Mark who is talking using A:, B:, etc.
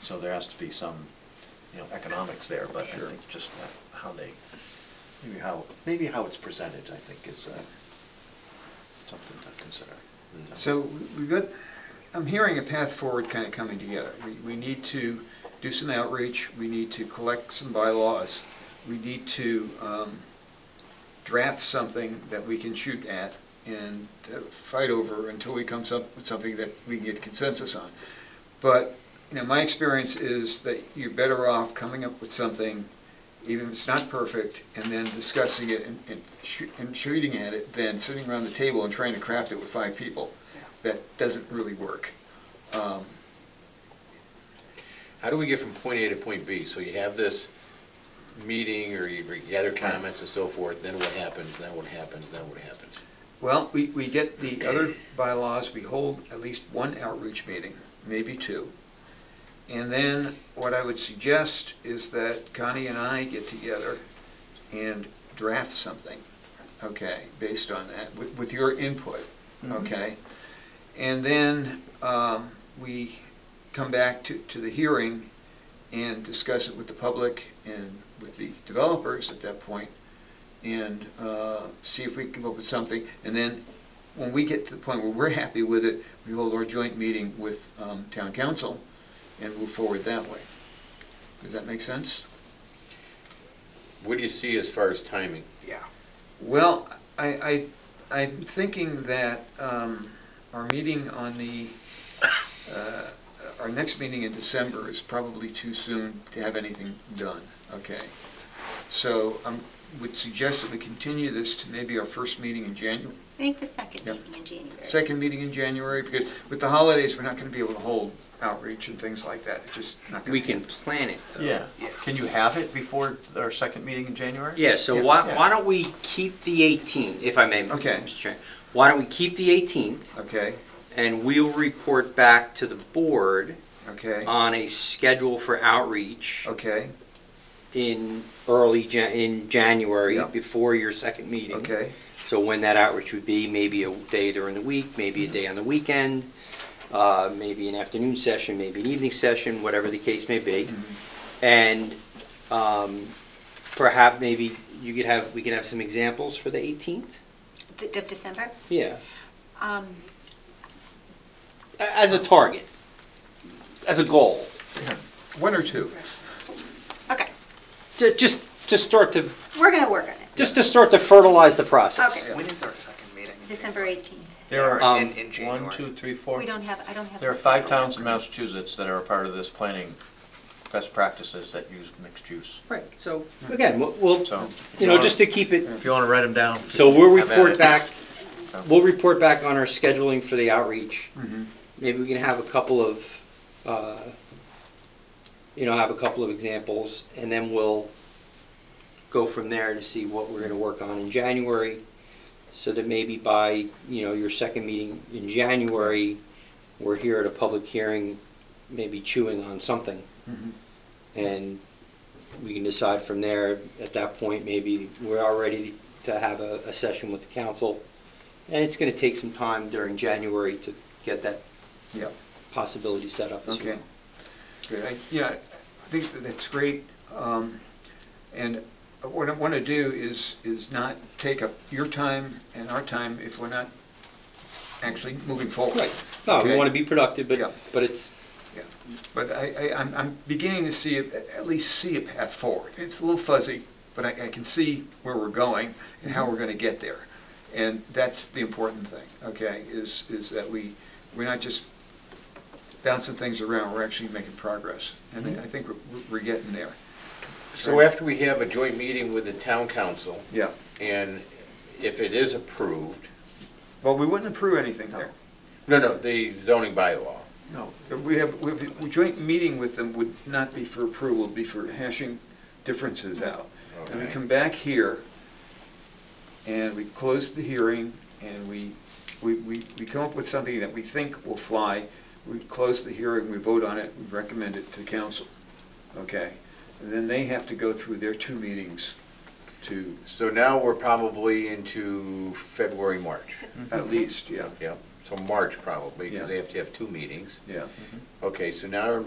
A: So there has to be some, you know, economics there, but I
B: Sure.
A: think just uh, how they, maybe how, maybe how it's presented, I think, is uh, something to consider. Mm.
B: So we've got, I'm hearing a path forward kind of coming together. We, we need to do some outreach, we need to collect some bylaws, we need to um, draft something that we can shoot at and uh, fight over until we come up with something that we can get consensus on. But, you know, my experience is that you're better off coming up with something, even if it's not perfect, and then discussing it and, and shoo- and shooting at it than sitting around the table and trying to craft it with five people. That doesn't really work. Um,
C: How do we get from point A to point B? So you have this meeting, or you gather comments and so forth, then what happens, then what happens, then what happens?
B: Well, we, we get the other bylaws, we hold at least one outreach meeting, maybe two. And then what I would suggest is that Connie and I get together and draft something, okay, based on that, with, with your input,
A: Mm-hmm.
D: Mm-hmm.
B: okay? And then, um, we come back to, to the hearing and discuss it with the public and with the developers at that point and uh, see if we can come up with something. And then, when we get to the point where we're happy with it, we hold our joint meeting with um, town council and move forward that way. Does that make sense?
C: What do you see as far as timing?
B: Well, I, I, I'm thinking that um, our meeting on the, uh, our next meeting in December is probably too soon to have anything done, okay? So I would suggest that we continue this to maybe our first meeting in January.
D: I think the second
B: Yeah.
D: meeting in January.
B: second meeting in January, because with the holidays, we're not gonna be able to hold outreach and things like that, It's just not gonna.
E: We can plan it, though.
A: Yeah, can you have it before our second meeting in January?
E: Yeah, so
B: Yeah.
E: why, why don't we keep the 18th, if I may,
B: Okay.
E: Mr. Chair? Why don't we keep the 18th,
B: Okay,
E: and we'll report back to the board
B: okay,
E: on a schedule for outreach
B: okay,
E: in early, Jan- in January,
B: Yeah.
E: before your second meeting.
B: okay,
E: So when that outreach would be, maybe a day during the week, maybe
B: Mm-hmm.
E: a day on the weekend, uh, maybe an afternoon session, maybe an evening session, whatever the case may
B: Mm-hmm.
E: be. And um, perhaps maybe you could have, we could have some examples for the 18th?
D: The- Of December?
E: Yeah,
D: Um,
E: A- as a target, as a goal,
B: one or two.
D: Okay,
E: Ju- just to start to,
D: we're going to work on it.
E: just to start to fertilize the process.
D: Okay,
F: When is our second meeting?
D: December 18th.
A: There are
E: Um,
F: In, in January?
A: one, two, three, four.
D: We don't have, I don't have.
A: There are
D: the
A: five
D: schedule.
A: towns in Massachusetts that are a part of this planning best practices that use mixed use.
E: Right, so again, we'll- we'll,
A: So if
E: you know,
A: wanna-
E: just to keep it,
A: If you want to write them down.
E: so we'll
A: have at
E: report
A: it.
E: back
A: So-
E: We'll report back on our scheduling for the outreach. Maybe we can have a couple of, uh, you know, have a couple of examples, and then we'll go from there to see what we're gonna work on in January. So that maybe by, you know, your second meeting in January, we're here at a public hearing, maybe chewing on something.
B: Mm-hmm.
E: And we can decide from there, at that point, maybe we are ready to have a, a session with the council. And it's gonna take some time during January to get that
B: Yeah.
E: possibility set up as
B: Okay,
E: well.
B: good, I, yeah, I think that that's great, um, and what I wanna do is, is not take up your time and our time if we're not actually moving forward.
E: Right, no, we
B: Okay.
E: wanna be productive,
B: Yeah.
E: but, but it's,
B: Yeah, But I, I, I'm, I'm beginning to see, a- at least see a path forward. It's a little fuzzy, but I, I can see where we're going and how we're gonna get there. And that's the important thing, okay, is, is that we, we're not just bouncing things around, we're actually making progress. And I I think we're, we're getting there.
C: So after we have a joint meeting with the town council,
B: Yeah.
C: and if it is approved,
B: Well, we wouldn't approve anything there.
C: no, no, the zoning bylaw,
B: No. We have, we have, a joint meeting with them would not be for approval, it'd be for hashing differences out. And we
C: Okay.
B: come back here, and we close the hearing, and we, we, we we come up with something that we think will fly. We close the hearing, we vote on it, we recommend it to council, okay? And then they have to go through their two meetings to,
C: so now we're probably into February, March.
B: at least, yeah,
C: Yeah, so March probably,
B: Yeah.
C: because they have to have two meetings.
B: yeah.
C: Okay, so now